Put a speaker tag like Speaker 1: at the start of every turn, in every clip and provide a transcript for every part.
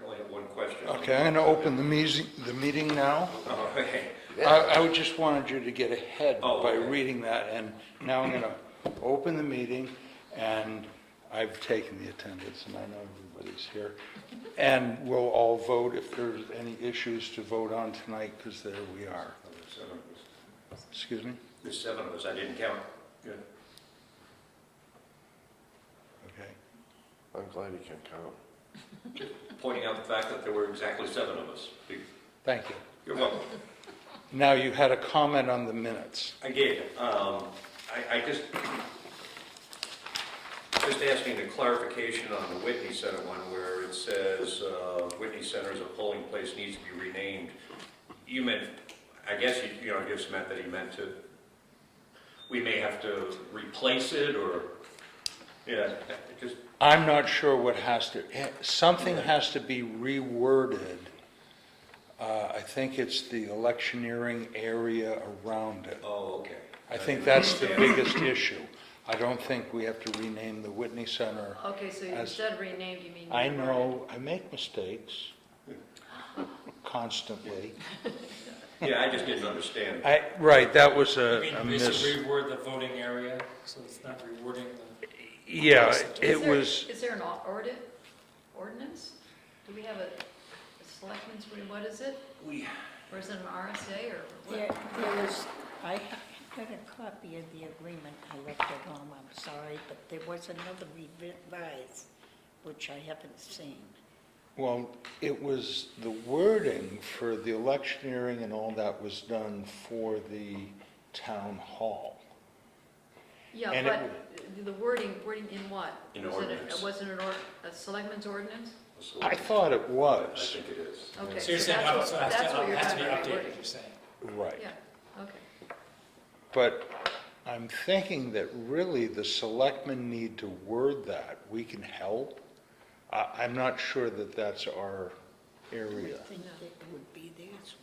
Speaker 1: Okay, I'm going to open the meeting, the meeting now.
Speaker 2: Oh, okay.
Speaker 1: I, I just wanted you to get ahead
Speaker 2: Oh,
Speaker 1: by
Speaker 2: okay.
Speaker 1: reading that, and now I'm going to open the meeting, and I've taken the attendance, and I know everybody's here. And we'll all vote if there's any issues to vote on tonight, because there we are.
Speaker 2: There's seven of us.
Speaker 1: Excuse me?
Speaker 2: There's seven of us, I didn't count. Good.
Speaker 1: Okay.
Speaker 3: I'm glad you can count.
Speaker 2: Pointing out the fact that there were exactly seven of us. Be-
Speaker 1: Thank you.
Speaker 2: You're welcome.
Speaker 1: Now, you had a comment on the minutes.
Speaker 2: I did. Um, I, I just, just asking the clarification on the Whitney Center one where it says, uh, Whitney Center as a polling place needs to be renamed. You meant, I guess, you, you know, you just meant that he meant to, we may have to replace it or, yeah, just,
Speaker 1: I'm not sure what has to, eh, something has to be reworded. Uh, I think it's the electioneering area around it.
Speaker 2: oh, okay.
Speaker 1: I think that's the biggest issue. I don't think we have to rename the Whitney Center.
Speaker 4: Okay, so you
Speaker 1: As-
Speaker 4: said renamed, you mean.
Speaker 1: I
Speaker 4: you
Speaker 1: know, I make mistakes constantly.
Speaker 2: Yeah, I just didn't understand.
Speaker 1: I, right, that was
Speaker 5: I
Speaker 1: a
Speaker 5: mean,
Speaker 1: a Uh, miss.
Speaker 5: basically reword the voting area, so it's not rewarding the,
Speaker 1: Yeah,
Speaker 4: Is
Speaker 1: it
Speaker 4: there-
Speaker 1: was,
Speaker 4: Is there an or- ordi- ordinance? Do we have a a selectmen's, re- what is it?
Speaker 2: We,
Speaker 4: Or is it an RSA or
Speaker 6: There,
Speaker 4: what?
Speaker 6: there was, I ha- got a copy of the agreement, I left it home, I'm sorry, but there was another revised, which I haven't seen.
Speaker 1: well, it was, the wording for the electioneering and all that was done for the town hall.
Speaker 4: Yeah,
Speaker 1: And it
Speaker 4: but the wording, wording in what?
Speaker 2: In
Speaker 4: Was it a-
Speaker 2: ordinance.
Speaker 4: Wasn't it an or- a selectmen's ordinance?
Speaker 1: I thought it
Speaker 2: I
Speaker 1: was,
Speaker 2: think it is.
Speaker 4: Okay,
Speaker 5: so you're
Speaker 4: so
Speaker 5: saying,
Speaker 4: that's
Speaker 5: oh,
Speaker 4: what-
Speaker 5: so it has
Speaker 4: that's
Speaker 5: to,
Speaker 4: what
Speaker 5: it
Speaker 4: you're
Speaker 5: has to be
Speaker 4: talking about,
Speaker 5: updated,
Speaker 4: wording.
Speaker 5: you're saying.
Speaker 1: right.
Speaker 4: Yeah, okay.
Speaker 1: But I'm thinking that really the selectmen need to word that, we can help. I, I'm not sure that that's our
Speaker 6: I
Speaker 1: area.
Speaker 6: think it would be theirs,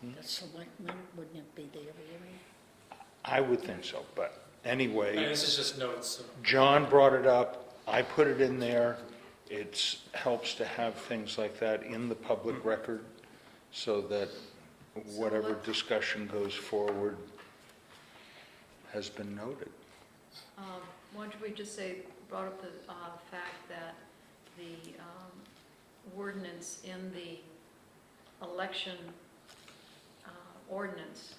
Speaker 6: wouldn't it? The selectmen, wouldn't it be their area?
Speaker 1: I would think so, but
Speaker 5: I mean,
Speaker 1: anyway,
Speaker 5: this is just notes, so.
Speaker 1: John brought it up, I put it in there. It helps to have things like that in the public record so that whatever discussion goes forward has been noted.
Speaker 4: Um, Why don't we just say, brought up the uh, fact that the um, ordinance in the election uh, ordinance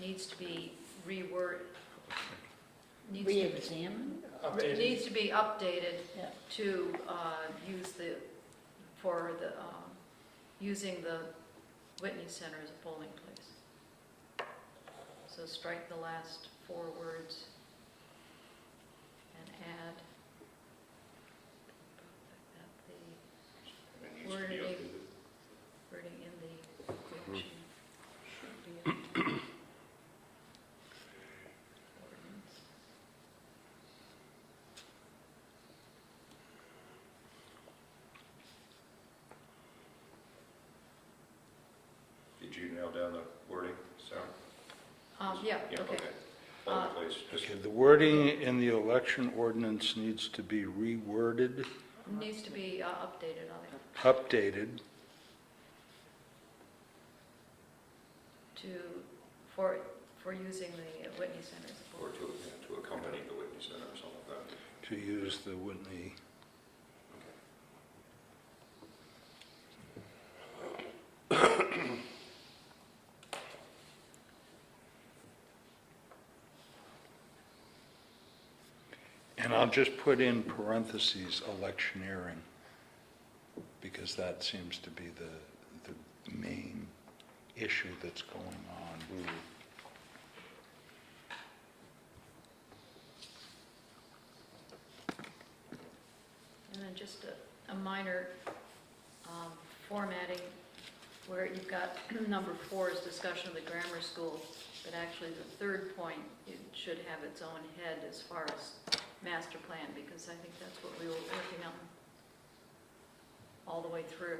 Speaker 4: needs to be reword, needs to,
Speaker 6: Reexamined?
Speaker 5: Updated.
Speaker 4: needs to be updated
Speaker 6: Yeah.
Speaker 4: to uh, use the, for the, um, using the Whitney Center as a polling place. So strike the last four words and add that
Speaker 2: It needs to be
Speaker 4: Wording.
Speaker 2: updated.
Speaker 4: the wording in the election should be in the ordinance.
Speaker 2: Did you nail down the wording, Sarah?
Speaker 4: Um, Yeah,
Speaker 2: Yeah,
Speaker 4: okay.
Speaker 2: All
Speaker 4: Uh,
Speaker 2: in place, just,
Speaker 1: Okay, the wording in the election ordinance needs to be reworded,
Speaker 4: Needs to be uh, updated on it
Speaker 1: updated.
Speaker 4: to, for, for using the Whitney Center as a polling
Speaker 2: or to, yeah, to accompany the Whitney Center or something like that.
Speaker 1: to use the Whitney. And I'll just put in parentheses electioneering, because that seems to be the, the main issue that's going on.
Speaker 4: And then just a, a minor um, formatting where you've got number four is discussion of the grammar school, but actually the third point, it should have its own head as far as master plan, because I think that's what we were working on all the way through.